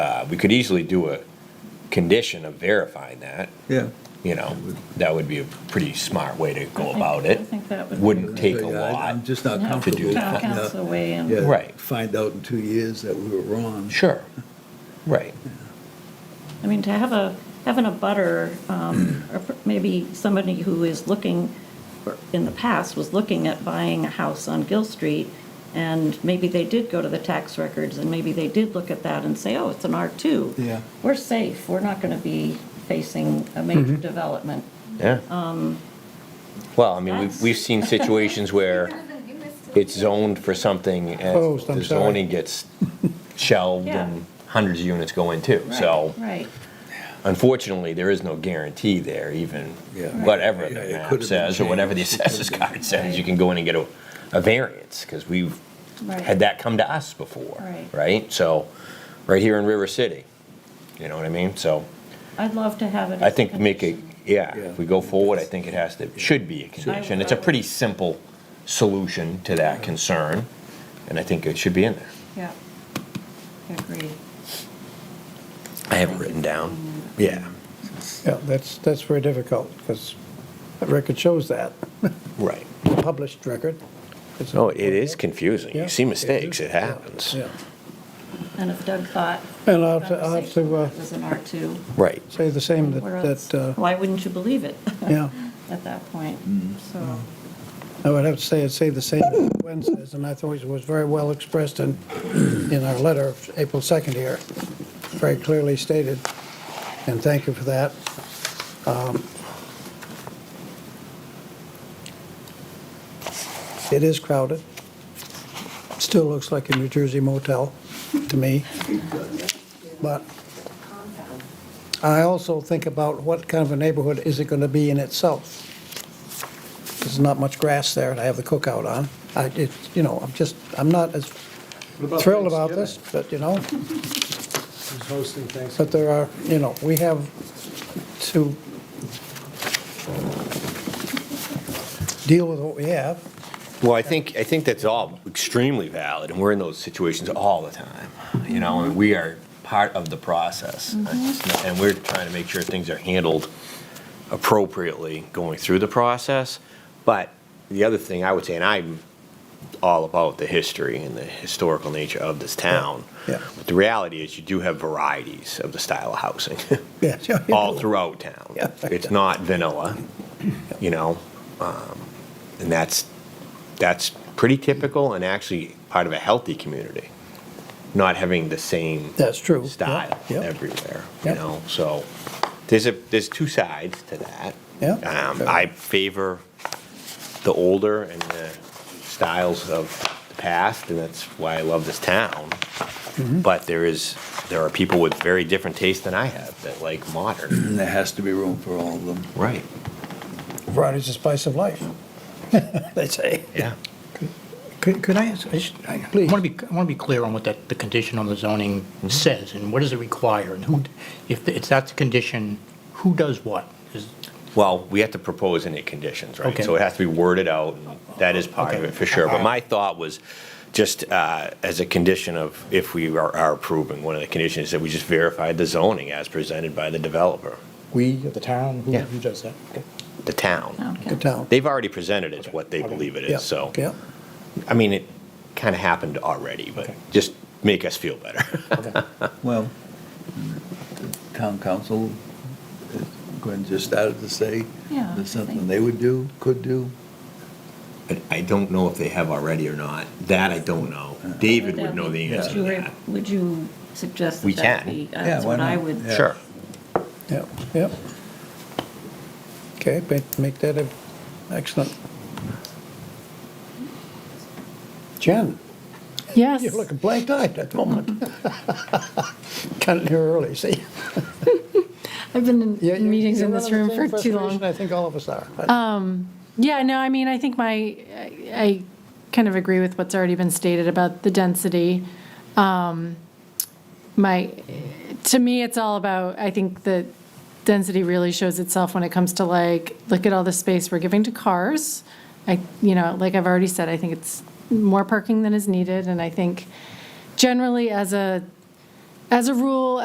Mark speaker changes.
Speaker 1: Uh, we could easily do a condition of verifying that,
Speaker 2: yeah.
Speaker 1: you know, that would be a pretty smart way to
Speaker 3: I
Speaker 1: go
Speaker 3: think-
Speaker 1: about it.
Speaker 3: I think that would be-
Speaker 1: Wouldn't take a
Speaker 2: Yeah, I- I'm
Speaker 1: lot.
Speaker 2: just not
Speaker 3: Yeah.
Speaker 2: comfortable.
Speaker 1: To do
Speaker 3: Town
Speaker 1: that.
Speaker 3: council weigh in.
Speaker 2: Yeah,
Speaker 1: Right.
Speaker 2: Find out in two years that we were wrong.
Speaker 1: Sure, right.
Speaker 3: I mean, to have a, having a butter, um, or maybe somebody who is looking, or in the past, was looking at buying a house on Gill Street, and maybe they did go to the tax records, and maybe they did look at that and say, oh, it's an R2.
Speaker 2: Yeah.
Speaker 3: We're safe, we're not going to be facing a major development.
Speaker 1: Yeah. Well, I mean, we've,
Speaker 3: Um, that's-
Speaker 1: we've seen situations where it's zoned for something and
Speaker 4: Opposed, I'm
Speaker 1: the
Speaker 4: sorry.
Speaker 1: zoning gets shelved
Speaker 3: Yeah.
Speaker 1: and hundreds of units go in too.
Speaker 3: Right,
Speaker 1: So
Speaker 3: Right,
Speaker 1: unfortunately, there is no guarantee there even,
Speaker 2: Yeah.
Speaker 1: whatever
Speaker 2: Yeah,
Speaker 1: the
Speaker 2: it could have
Speaker 1: map
Speaker 2: been
Speaker 1: says or whatever the
Speaker 2: changed. It could have
Speaker 1: assessor's
Speaker 2: been-
Speaker 1: card says, you
Speaker 3: Right.
Speaker 1: can go in and get a, a variance because we've
Speaker 3: Right.
Speaker 1: had that come to us before,
Speaker 3: Right.
Speaker 1: right? So, right here in River City, you know what I mean? So
Speaker 3: I'd love to have it as
Speaker 1: I
Speaker 3: a
Speaker 1: think make it,
Speaker 3: condition.
Speaker 1: yeah,
Speaker 2: Yeah.
Speaker 1: if we go forward, I think it has to, should be a condition. It's a pretty simple solution to that concern, and I think it should be in there.
Speaker 3: Yeah, I agree.
Speaker 1: I have it written down. Yeah,
Speaker 4: Yeah, that's, that's very difficult, because the record shows that,
Speaker 1: right.
Speaker 4: the published record. It's-
Speaker 1: No, it is confusing.
Speaker 4: Yeah.
Speaker 1: You see mistakes, it happens.
Speaker 4: Yeah.
Speaker 3: And if Doug thought.
Speaker 4: And I'll have to- I'll have to, uh,
Speaker 3: It was an R2.
Speaker 1: Right.
Speaker 4: Say the same, that,
Speaker 3: Where else?
Speaker 4: that, uh,
Speaker 3: Why wouldn't you believe it
Speaker 4: yeah,
Speaker 3: at that point?
Speaker 1: Mm.
Speaker 3: So,
Speaker 4: Mm. I would have to say, I'd say the same that Gwen says, and I thought it was very well expressed in, in our letter of April 2nd here, very clearly stated, and thank you for that. Um, It is crowded. Still looks like a New Jersey motel to me. But I also think about what kind of a neighborhood is it going to be in itself? There's not much grass there, and I have the cookout on. I, it, you know, I'm just, I'm not as thrilled about this, but, you know,
Speaker 5: Who's hosting Thanksgiving?
Speaker 4: but there are, you know, we have to deal with what we have.
Speaker 1: Well, I think, I think that's all extremely valid, and we're in those situations all the time, you know, and we are part of the process.
Speaker 4: Mm-hmm.
Speaker 1: And we're trying to make sure things are handled appropriately going through the process. But the other thing I would say, and I'm all about the history and the historical nature of this town.
Speaker 4: Yeah.
Speaker 1: But the reality is you do have varieties of the style of housing
Speaker 4: Yeah, sure you
Speaker 1: all
Speaker 4: do.
Speaker 1: throughout town.
Speaker 4: Yeah.
Speaker 1: It's not vanilla, you know? um, And that's, that's pretty typical and actually part of a healthy community, not having the same
Speaker 4: That's true.
Speaker 1: style
Speaker 4: Yeah, yeah.
Speaker 1: everywhere, you
Speaker 4: Yeah.
Speaker 1: know? So there's a, there's two sides to that.
Speaker 4: Yeah.
Speaker 1: Um, I favor the older and the styles of the past, and that's why I love this town. But there is, there are people with very different tastes than I have that like modern.
Speaker 2: And there has to be room for all of them.
Speaker 1: Right.
Speaker 4: Variety's the spice of life, they say.
Speaker 1: Yeah.
Speaker 6: Could could I ask, I just- I
Speaker 4: Please.
Speaker 6: want to be, I want to be clear on what that, the condition on the zoning says, and what does it require, and who, if it's that's the condition, who does what? Is-
Speaker 1: Well, we have to propose any conditions, right?
Speaker 6: Okay.
Speaker 1: So it has to be worded out, and that is part of
Speaker 6: Okay.
Speaker 1: it for sure. But my thought was just uh, as a condition of, if we are are approving, one of the conditions is that we just verify the zoning as presented by the developer,
Speaker 6: We, the town, who
Speaker 1: Yeah.
Speaker 6: who does that? Okay.
Speaker 1: the town.
Speaker 3: okay.
Speaker 4: Good town.
Speaker 1: They've already presented it, what they
Speaker 6: Oh. Okay.
Speaker 1: believe it
Speaker 4: Yeah,
Speaker 1: is, so.
Speaker 4: Yeah,
Speaker 1: I mean, it kind of happened already, but
Speaker 6: Okay.
Speaker 1: just make us feel better.
Speaker 6: Okay.
Speaker 2: Well, the town council, as Gwen just started to say,
Speaker 3: Yeah, I
Speaker 2: there's something
Speaker 3: think-
Speaker 2: they would do, could do.
Speaker 1: But I don't know if they have already or not. That I don't know.
Speaker 6: Uh,
Speaker 1: David would know the answer to
Speaker 3: Would you-
Speaker 1: that.
Speaker 3: Would you suggest
Speaker 1: We
Speaker 3: that that
Speaker 1: can.
Speaker 3: be, uh,
Speaker 2: Yeah,
Speaker 3: that's
Speaker 2: why
Speaker 3: what I
Speaker 2: not?
Speaker 3: would.
Speaker 2: Yeah.
Speaker 1: Sure.
Speaker 4: yeah, yeah. Okay, make- make that a- excellent. Jen?
Speaker 7: Yes.
Speaker 4: You're looking blank-eyed at the moment. Got in here early, see?
Speaker 7: I've been
Speaker 4: Yeah,
Speaker 7: in
Speaker 4: you're-
Speaker 7: meetings in
Speaker 4: you're
Speaker 7: this
Speaker 4: under the
Speaker 7: room
Speaker 4: same
Speaker 7: for too
Speaker 4: frustration
Speaker 7: long.
Speaker 4: I think all of us are.
Speaker 7: Yeah, no, I mean, I think my, I I kind of agree with what's already been stated about the density. Um, My, to me, it's all about, I think that density really shows itself when it comes to like, look at all the space we're giving to cars. I, you know, like I've already said, I think it's more parking than is needed, and I think generally as a as a rule,